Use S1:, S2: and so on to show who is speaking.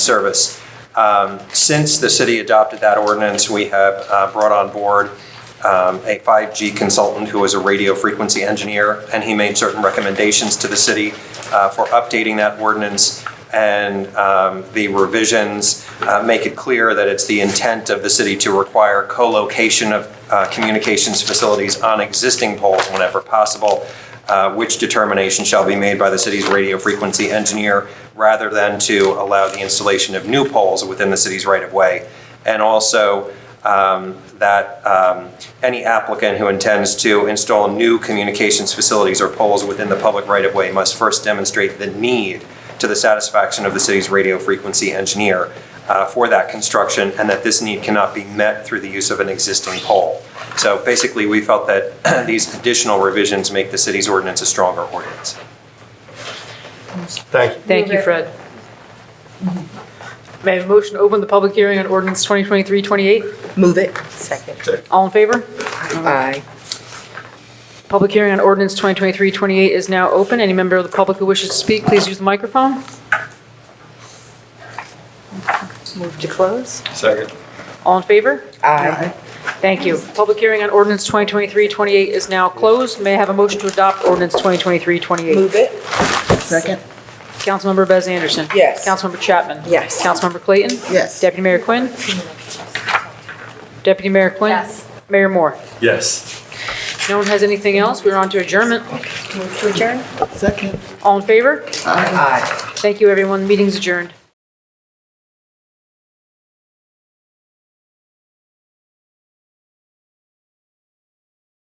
S1: service. Um, Since the city adopted that ordinance, we have uh, brought on board um, a 5G consultant who is a radio frequency engineer, and he made certain recommendations to the city uh, for updating that ordinance. And um, the revisions uh, make it clear that it's the intent of the city to require co-location of uh, communications facilities on existing poles whenever possible uh, which determination shall be made by the city's radio frequency engineer rather than to allow the installation of new poles within the city's right-of-way. And also um, that um, any applicant who intends to install new communications facilities or poles within the public right-of-way must first demonstrate the need to the satisfaction of the city's radio frequency engineer uh, for that construction, and that this need cannot be met through the use of an existing pole. So basically, we felt that these additional revisions make the city's ordinance a stronger ordinance.
S2: Thank you.
S3: Thank
S4: Move
S3: you,
S4: it.
S3: Fred. May I have a motion to open the public hearing on ordinance 2023-28?
S4: Move it. Second.
S3: All in favor?
S4: Aye.
S3: Public hearing on ordinance 2023-28 is now open. Any member of the public who wishes to speak, please use the microphone.
S4: Move to close?
S2: Second.
S3: All in favor?
S4: Aye.
S3: Thank you. Public hearing on ordinance 2023-28 is now closed. May I have a motion to adopt ordinance 2023-28?
S4: Move it. Second.
S3: Councilmember Bez Anderson.
S4: Yes.
S3: Councilmember Chapman.
S4: Yes.
S3: Councilmember Clayton.
S4: Yes.
S3: Deputy Mayor Quinn. Deputy Mayor Quinn. Yes. Mayor Moore.
S2: Yes.
S3: No one has anything else? We're on to adjournment.
S4: Move to adjourn?
S5: Second.
S3: All in favor?
S4: Aye.
S3: Thank you, everyone. Meeting's adjourned.